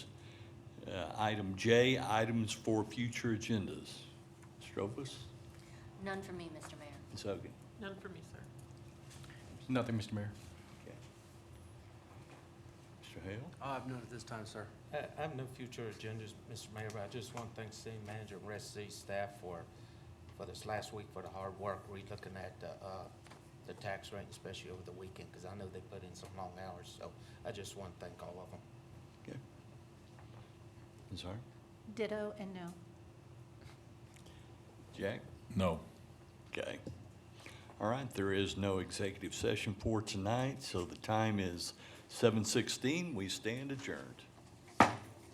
Uh, Item J, items for future agendas. Strobus, None for me, Mr. Mayor. Ms. Hogan. None for me, sir. Nothing, Mr. Mayor. Okay. Mr. Hale? I have none at this time, sir. I I have no future agendas, Mr. Mayor, but I just want to thank city manager and rest city staff for, for this last week, for the hard work, relooking at the, uh, the tax rate, especially over the weekend, because I know they put in some long hours, so I just want to thank all of them. Okay. Ms. Hart? Ditto and no. Jack? No. Okay. All right, there is no executive session for tonight, so the time is seven sixteen. We stand adjourned.